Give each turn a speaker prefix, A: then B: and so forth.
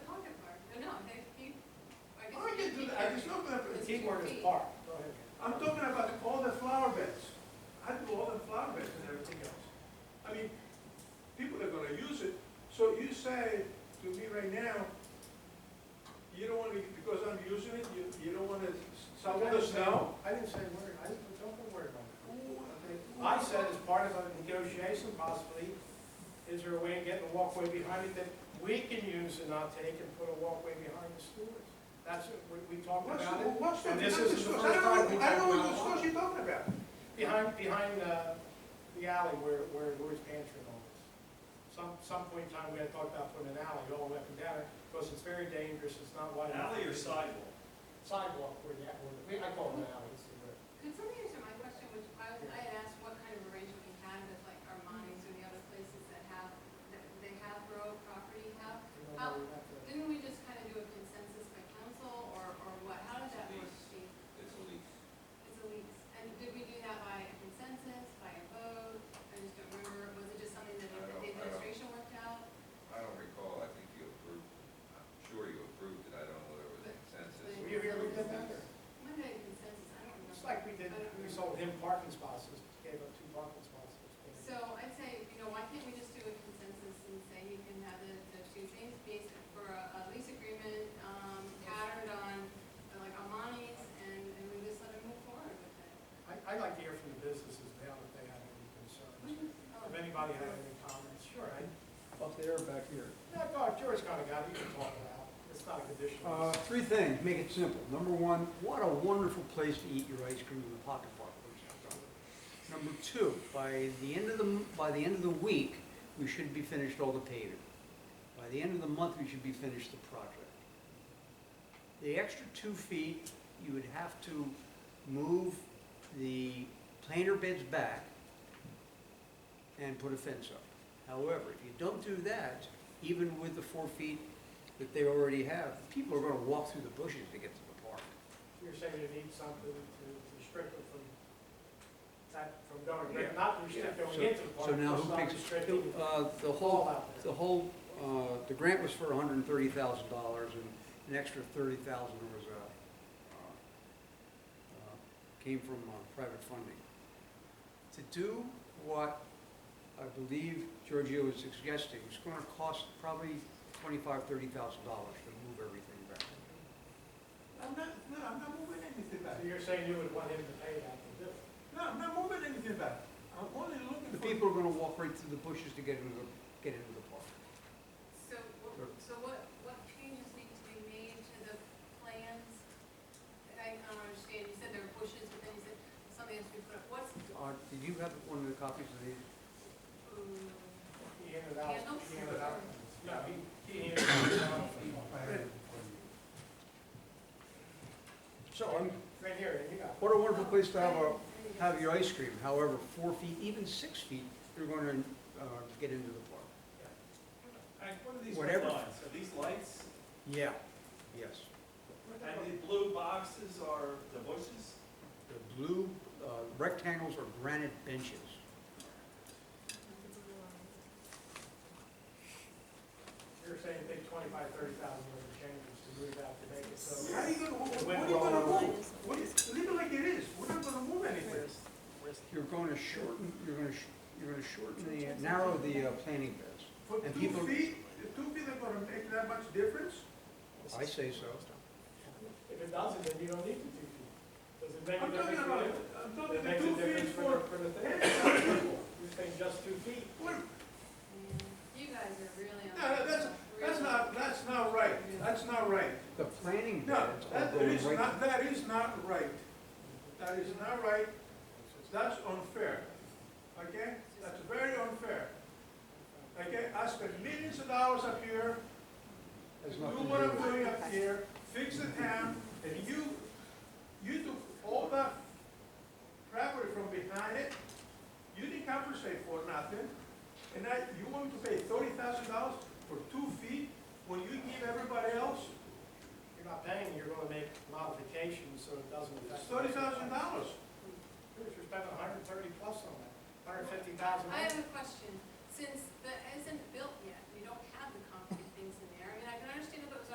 A: park.
B: I'm talking about all the flower beds. I do all the flower beds and everything else. I mean, people are gonna use it, so you say to me right now, you don't wanna, because I'm using it, you, you don't wanna shovel the snow?
A: I didn't say a word, I didn't, don't worry about
B: Okay.
A: it. I said as part of a negotiation possibly, is there a way of getting a walkway behind it that we can use and not take and put a walkway behind the stores? That's, what we, we talked
B: What's,
A: about it,
B: what's the,
A: And this
B: what's the
A: is the
B: source?
A: first
B: I don't
A: time
B: know,
A: we
B: I don't know
A: talked
B: what
A: about
B: source you're talking about.
A: behind, behind, uh, the alley where, where Lord's Pantry and all this. Some, some point in time, we had talked about putting an alley all the way up and down, because it's very dangerous, it's not wide
C: An
A: enough.
C: alley or sidewalk?
A: Sidewalk where the, where the, I call it an alley, it's the-
D: Could somebody answer my question, which I, was- I had asked what kind of arrangement we had with like Armani's or the other places that have, that they have row property have?
A: you know, where we have to-
D: Didn't we just kind of do a consensus by council or, or what? How did that work, Steve?
E: It's a lease.
D: It's a lease. And did we do that by a consensus, by a vote? I just don't remember. Was it just something that
E: I don't- I
D: the
E: don't-
D: administration worked out?
E: I don't recall, I think you approved, I'm sure you approved it, I don't know whether it was a consensus.
D: But-
E: or
A: You really did that?
D: When did it consensus? I don't remember.
A: Just like we did, we sold him parking spots, just gave up two parking spots.
D: So I'd say, you know, why can't we just do a consensus and say you can have the, the two things based for a, a lease agreement, um, patterned on, uh, like, Amani's, and, and we just let them move forward with it?
A: I, I'd like to hear from the businesses now if they have any concerns. Mm-hmm. If anybody had any comments, sure, I,
F: Up there, back here.
A: yeah, God, George kind of got it, you can talk about it. It's not a
F: Uh,
A: conditional.
F: Three things, make it simple. Number one, what a wonderful place to eat your ice cream in the pocket park. Number two, by the end of the, m- by the end of the week, we should be finished all the paving. By the end of the month, we should be finished the project. The extra two feet, you would have to move the planter beds back and put a fence up. However, if you don't do that, even with the four feet that they already have, people are gonna walk through the bushes to get to the park.
A: You're saying you need something to restrict them from, that, from going, but not restrict them
F: So-
A: into the park.
F: So now
A: just
F: who
A: not
F: picks,
A: restricting
F: uh, the
A: all
F: whole,
A: out
F: the
A: there.
F: whole, uh, the grant was for hundred and thirty thousand dollars and an extra thirty thousand was, uh, uh, came from, uh, private funding. To do what I believe Giorgio is suggesting, it's gonna cost probably twenty-five, thirty thousand dollars to move everything back.
B: I'm not, no, I'm not moving anything back.
A: So you're saying you would want him to pay that to do it?
B: No, I'm not moving anything back. I'm only looking
F: The
B: for.
F: people are gonna walk right through the bushes to get into the, get into the park.
D: So, wh-
F: Sure.
D: so what, what changes need to be made to the plans? I I don't understand, you said there were bushes, but then you said something has to be put up, what's,
F: Uh, did you have one of the copies of these?
D: ooh,
A: He handed out,
D: Candles?
A: he handed out, no, he, he handed out,
F: So, I'm,
A: right here, you got it.
F: What a wonderful place to have a,
D: Right.
F: have your ice cream, however, four feet, even six feet, you're gonna, uh, get into the park.
C: And what are these
F: Whatever.
C: lines? Are these lights?
F: Yeah. Yes.
C: And the blue boxes are the bushes?
F: The blue, uh, rectangles are granite benches.
A: You're saying take twenty-five, thirty thousand worth of changes to move that to make it so.
B: How are you gonna, wh- wh- what are you
A: Went
B: gonna
A: wrong.
B: move? What is, leave it like it is, we're not gonna move anything.
F: You're gonna shorten, you're gonna, sh- you're gonna shorten the, narrow the, uh, planting beds.
B: For
F: And
B: two
F: people-
B: feet, the two feet are gonna make that much difference?
F: I say so.
A: If it doesn't, then you don't need the two feet. Does it make a
B: I'm talking
A: difference?
B: about,
A: for
B: I'm
A: you?
B: talking
A: It
B: the
A: makes a
B: two feet
A: difference
B: for.
A: for, for the thing.
B: handicapped people.
A: You're saying just two feet.
B: What-
D: Yeah. You guys are really on.
B: No, no, That's
D: really-
B: not, that's not right, that's not right.
F: The planting
B: No,
F: beds are
B: that
F: going
B: is
F: right,
B: not, that is not right. That is not right, that's unfair, okay? That's very unfair, okay? I spend millions of dollars up here,
F: has
B: do
F: nothing to
B: what
F: do
B: I'm
F: with.
B: doing up here, fix the town, and you, you took all that property from behind it, you didn't compensate for nothing, and now you want to pay thirty thousand dollars for two feet when you give everybody else
A: You're not paying, you're gonna make modifications so it doesn't affect.
B: thirty thousand dollars.
A: You're spending a hundred and thirty plus on that, hundred and fifty thousand.
D: I have a